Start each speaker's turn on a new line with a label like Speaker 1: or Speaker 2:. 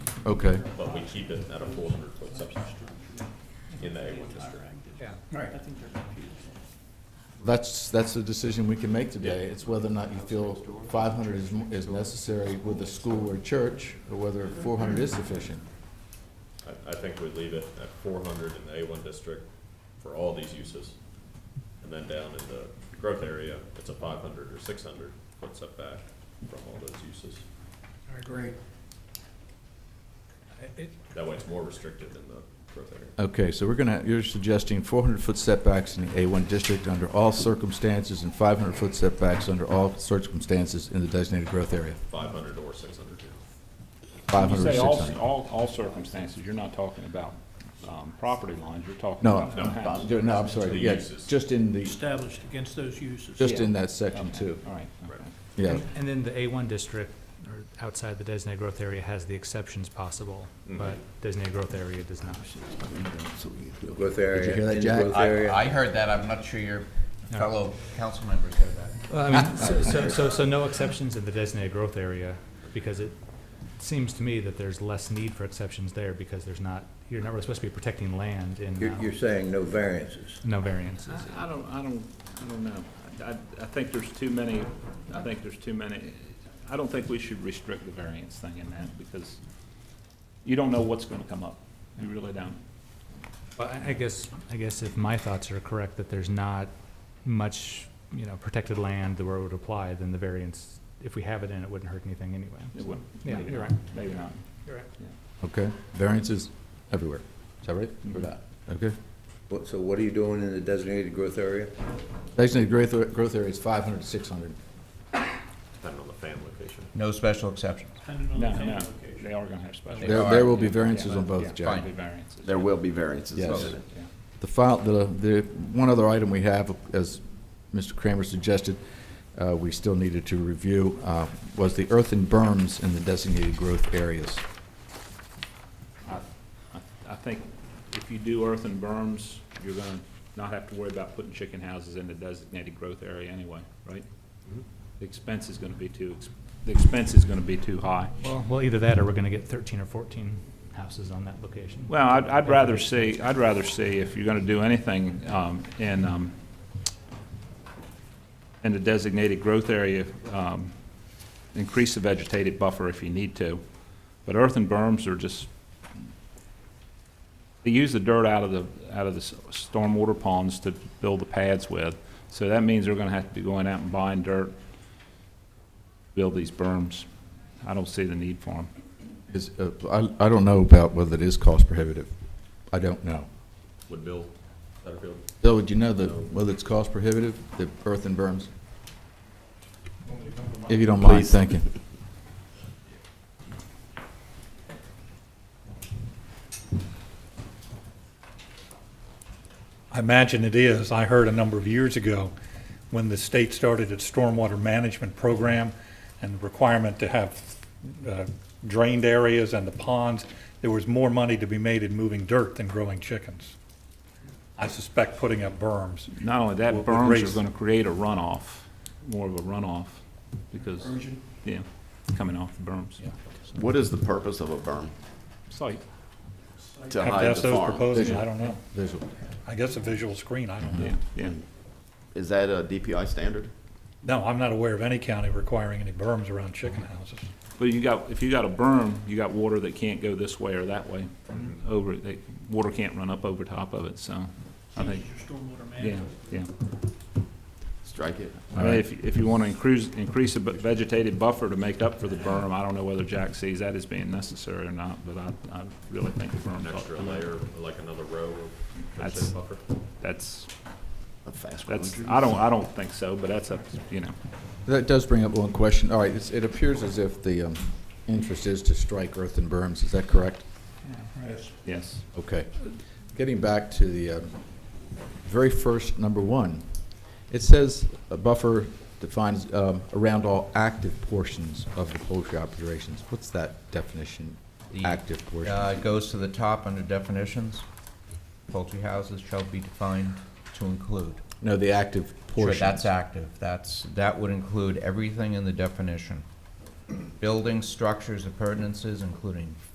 Speaker 1: Okay,
Speaker 2: but we keep it at a four hundred foot substance structure in the A one district.
Speaker 3: Yeah.
Speaker 1: that's, that's a decision we can make today. It's whether or not you feel 500 is, is necessary with a school or church, or whether 400 is sufficient.
Speaker 2: I, I think we leave it at four hundred in the A one district for all these uses. And then down in the growth area, it's a five hundred or six hundred foot setback from all those uses.
Speaker 3: I agree. It,
Speaker 2: That way it's more restricted in the growth area.
Speaker 1: Okay, so we're gonna, you're suggesting 400-foot setbacks in the A1 district under all circumstances and 500-foot setbacks under all circumstances in the designated growth area,
Speaker 2: Five hundred or six hundred,
Speaker 4: You
Speaker 1: 500 or
Speaker 4: say all,
Speaker 1: 600.
Speaker 4: all, all circumstances, you're not talking about, um, property lines, you're talking
Speaker 1: No,
Speaker 4: about. houses.
Speaker 1: no, no, I'm sorry,
Speaker 2: The
Speaker 1: yeah,
Speaker 2: uses.
Speaker 1: just in the,
Speaker 5: established against those uses.
Speaker 1: just
Speaker 4: Yeah.
Speaker 1: in that section
Speaker 4: Okay,
Speaker 1: too,
Speaker 4: All right,
Speaker 2: Right.
Speaker 4: okay.
Speaker 1: yeah.
Speaker 6: And- And then the A1 district, or outside the designated growth area, has the exceptions possible, but designated growth area does not.
Speaker 7: Growth area.
Speaker 1: hear that,
Speaker 7: in the
Speaker 1: Jack?
Speaker 7: growth
Speaker 8: I,
Speaker 7: area.
Speaker 8: I heard that, I'm not sure your fellow council members heard that.
Speaker 6: Well, I mean, so- so, so, so no exceptions in the designated growth area, because it seems to me that there's less need for exceptions there, because there's not, you're not really supposed to be protecting land in,
Speaker 7: You're, you're
Speaker 6: um,
Speaker 7: saying no variances.
Speaker 6: no variances.
Speaker 4: I I don't, I don't, I don't know. I, I think there's too many, I think there's too many, I don't think we should restrict the variance thing in that, because you don't know what's gonna come up. You really don't.
Speaker 6: Well, I- I guess, I guess if my thoughts are correct, that there's not much, you know, protected land where it would apply, then the variance, if we have it in, it wouldn't hurt anything anyway.
Speaker 4: It wouldn't.
Speaker 6: Yeah,
Speaker 4: Maybe
Speaker 6: you're
Speaker 4: not.
Speaker 6: right.
Speaker 4: Maybe not.
Speaker 5: You're right.
Speaker 1: Okay, variances everywhere, is that right? Or
Speaker 4: Mm-hmm.
Speaker 1: not? Okay.
Speaker 7: What- So what are you doing in the designated growth area?
Speaker 1: Designated growth, growth area is 500 to 600.
Speaker 2: depending on the fan location.
Speaker 8: No special exceptions.
Speaker 5: Depending on the
Speaker 4: No,
Speaker 5: fan
Speaker 4: no,
Speaker 5: location.
Speaker 4: they are gonna have special.
Speaker 8: They
Speaker 1: There,
Speaker 8: are,
Speaker 1: there will be
Speaker 8: yeah,
Speaker 1: variances on
Speaker 4: Yeah,
Speaker 1: both, Jack.
Speaker 8: fine.
Speaker 4: probably variances.
Speaker 9: There will be variances.
Speaker 1: Yes.
Speaker 9: voted.
Speaker 4: Yeah.
Speaker 1: The file, the, the, one other item we have, as Mr. Kramer suggested, uh, we still needed to review, uh, was the earthen berms in the designated growth areas.
Speaker 4: I, I- I think if you do earth and berms, you're gonna not have to worry about putting chicken houses in the designated growth area anyway, right? The expense is gonna be too, ex- the expense is gonna be too high.
Speaker 6: Well, well, either that or we're gonna get thirteen or fourteen houses on that location.
Speaker 4: Well, I'd, I'd rather see, I'd rather see if you're gonna do anything, um, in, um, in the designated growth area, um, increase the vegetated buffer if you need to. But earth and berms are just, they use the dirt out of the, out of the s- stormwater ponds to build the pads with. So that means they're gonna have to be going out and buying dirt, to build these berms. I don't see the need for them.
Speaker 1: Is, uh, I, I don't know about whether it is cost prohibitive. I don't know.
Speaker 2: Would Bill Satterfield
Speaker 1: Bill, would you know the, whether it's cost prohibitive, the earthen berms? If you don't mind,
Speaker 9: Please.
Speaker 1: thank you.
Speaker 10: I imagine it is. I heard a number of years ago, when the state started its stormwater management program and the requirement to have uh, drained areas and the ponds, there was more money to be made in moving dirt than growing chickens. I suspect putting up berms.
Speaker 4: Not only that,
Speaker 10: With- with
Speaker 4: berms
Speaker 10: rates.
Speaker 4: are gonna create a runoff, more of a runoff, because, yeah, coming off the berms.
Speaker 9: What is the purpose of a berm?
Speaker 4: Site,
Speaker 9: To
Speaker 10: Have to
Speaker 9: hide
Speaker 10: ask
Speaker 9: the
Speaker 10: those
Speaker 9: farm?
Speaker 10: proposing, I don't know.
Speaker 1: Visual.
Speaker 10: I guess a visual screen, I don't know.
Speaker 4: yeah, yeah.
Speaker 9: Is that a DPI standard?
Speaker 10: No, I'm not aware of any county requiring any berms around chicken houses.
Speaker 4: But you got, if you got a berm, you got water that can't go this way or that way,
Speaker 5: Mm-hmm.
Speaker 4: over, that, water can't run up over top of it, so, I think,
Speaker 5: Your stormwater
Speaker 4: yeah,
Speaker 5: management.
Speaker 4: yeah.
Speaker 9: Strike it.
Speaker 4: I mean, if, if you wanna increase, increase a bu- vegetated buffer to make up for the berm, I don't know whether Jack sees that as being necessary or not, but I, I really think the berm.
Speaker 2: an extra layer, like another row of
Speaker 4: Oh, That's-
Speaker 2: vegetative buffer?
Speaker 4: That's,
Speaker 9: A fast growing
Speaker 4: that's,
Speaker 9: tree.
Speaker 4: I don't, I don't think so, but that's up, you know.
Speaker 1: That does bring up one question. All right, it's- it appears as if the um, interest is to strike earthen berms, is that correct?
Speaker 4: Yes.
Speaker 1: Okay. Getting back to the uh, very first, number one, it says a buffer defines um, around all active portions of the poultry operations. What's that definition,
Speaker 8: The,
Speaker 1: active
Speaker 8: Uh,
Speaker 1: portion?
Speaker 8: it goes to the top under definitions. Poultry houses shall be defined to include.
Speaker 1: No, the active
Speaker 8: Sure,
Speaker 1: portion.
Speaker 8: That's active, that's, that would include everything in the definition. Buildings, structures, appurtenances, including